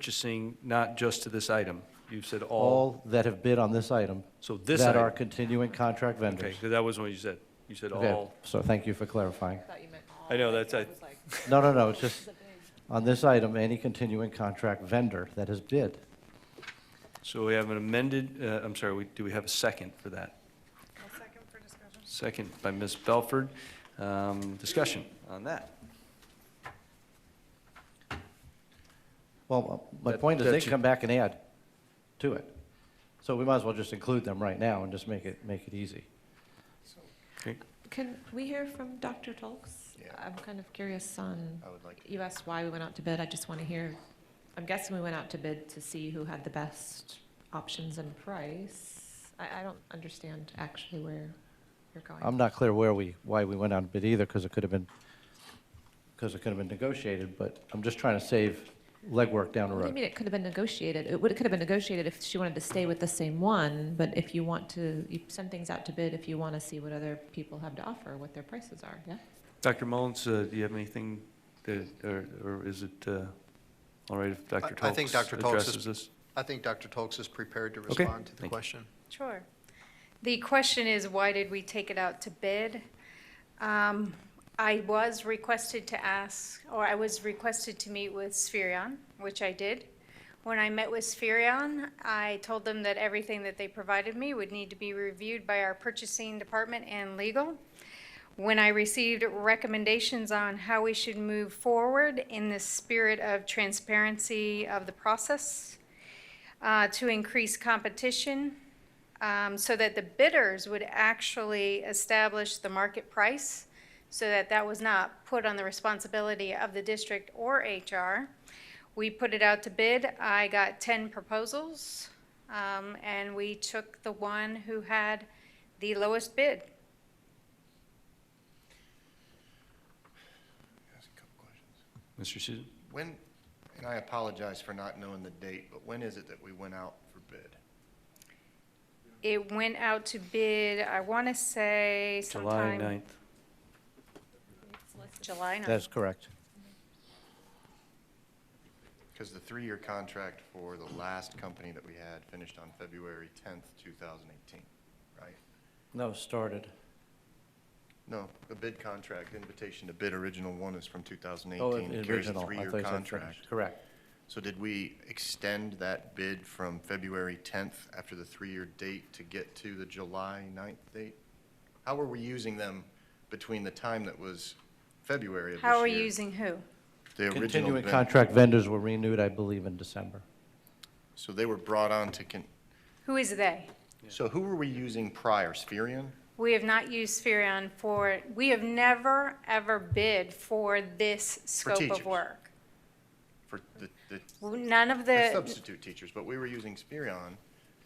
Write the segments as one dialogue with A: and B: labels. A: purchasing not just to this item? You've said all,
B: All that have bid on this item.
A: So this
B: That are
A: item-
B: continuing contract
A: okay,
B: vendors.
A: because that was what you said. You said
B: Okay,
A: all.
B: So thank you for clarifying.
C: thought you meant all.
A: I know, that's, I,
C: was like,
B: No, no, no, it's just, on this item, any continuing contract vendor that has bid.
A: so we have an amended, uh, I'm sorry, we, do we have a second for that?
C: "Well, second for discussion.
A: Second by Ms. Belford. Um, Discussion on that.
B: Well, my
A: That-
B: point is, they
A: that
B: can
A: you-
B: come back and add to it. So we might as well just include them right now and just make it, make it easy.
A: Okay.
C: Can we hear from Dr. Tolks?
D: Yeah.
C: I'm kind of curious on,
D: I would like,
C: you asked why we went out to bid, I just want to hear, I'm guessing we went out to bid to see who had the best options and price. I, I don't understand actually where you're going.
B: I'm not clear where we, why we went out and bid either, because it could have been, because it could have been negotiated, but I'm just trying to save legwork down the
C: What do you
B: road.
C: mean it could have been negotiated? It would, it could have been negotiated if she wanted to stay with the same one, but if you want to, you send things out to bid if you want to see what other people have to offer, what their prices are, yeah?
A: Dr. Mullins, uh, do you have anything, that- or or is it uh, all right if Dr.
D: I- I think Dr.
A: Tolks
D: Tolks is-
A: addresses this?
D: I think Dr. Tolks is prepared to
A: Okay,
D: respond to the
A: thank you.
D: question.
E: Sure. The question is, why did we take it out to bid? Um, I was requested to ask, or I was requested to meet with Sphurion, which I did. When I met with Sphurion, I told them that everything that they provided me would need to be reviewed by our purchasing department and legal. When I received recommendations on how we should move forward in the spirit of transparency of the process, uh, to increase competition, um, so that the bidders would actually establish the market price, so that that was not put on the responsibility of the district or HR. We put it out to bid. I got 10 proposals, um, and we took the one who had the lowest bid.
D: Ask a couple questions.
A: Mr. Susan?
D: When, and I apologize for not knowing the date, but when is it that we went out for bid?
E: It went out to bid, I want to say
A: July
E: sometime.
A: 9th.
E: July 9th.
B: That's correct.
D: Because the three-year contract for the last company that we had finished on February 10th, 2018, right?
B: No, started.
D: No, the bid contract, invitation to bid, original one is from
B: Oh,
D: 2018. It carries a
B: original. I
D: three-year
B: thought you said
D: contract.
B: finished. Correct.
D: So did we extend that bid from February 10th after the three-year date to get to the July 9th date? How were we using them between the time that was February of this year?
E: How are you using who?
D: The original
B: Continuing
D: bid.
B: contract vendors were renewed, I believe, in December.
D: So they were brought on to, con-
E: Who is they?
D: so who were we using prior? Sphurion?
E: We have not used Sphurion for, we have never, ever bid for this scope
D: teachers.
E: of work.
D: For the, the
E: Uh, None of
D: the
E: the,
D: substitute teachers, but we were using Sphurion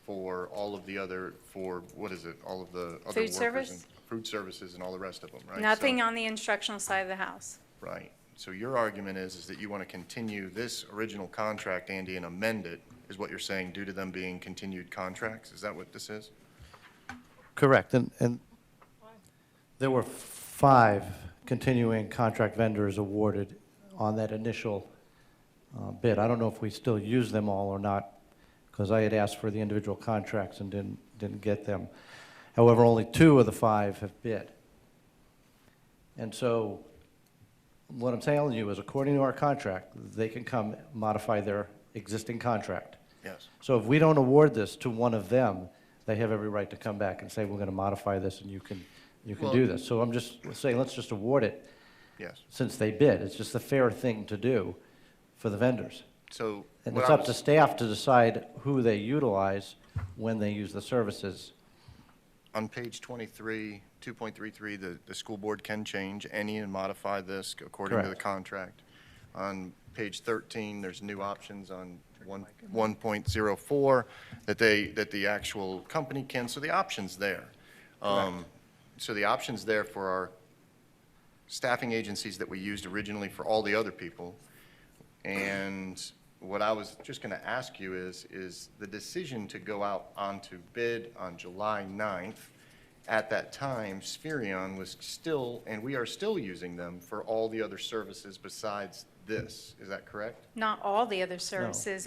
D: for all of the other, for, what is it, all of the other
E: Food
D: workers?
E: service?
D: and Food services and all the rest of them, right? So-
E: nothing on the instructional side of the house.
D: Right. So your argument is, is that you want to continue this original contract, Andy, and amend it, is what you're saying, due to them being continued contracts? Is that what this is?
B: Correct, and, and there were five continuing contract vendors awarded on that initial uh, bid. I don't know if we still use them all or not, because I had asked for the individual contracts and didn't, didn't get them. However, only two of the five have bid. And so, what I'm telling you is, according to our contract, they can come modify their existing contract.
D: Yes.
B: So if we don't award this to one of them, they have every right to come back and say, we're going to modify this and you can, you can do
D: Well-
B: this. So I'm just saying, let's just award it
D: Yes.
B: since they bid. It's just the fair thing to do for the vendors.
D: So.
B: And
D: what
B: it's
D: I
B: up to
D: was-
B: staff to decide who they utilize when they use the services.
D: On page 23, 2.33, the, the school board can change any and modify this according to the
B: Correct.
D: contract. On page 13, there's new options on one- 1.04 that they, that the actual company can, so the option's there. Um, So the option's there for our staffing agencies that we used originally for all the other people. And what I was just going to ask you is, is the decision to go out onto bid on July 9th, at that time, Sphurion was still, and we are still using them for all the other services besides this, is that correct?
E: Not all the other services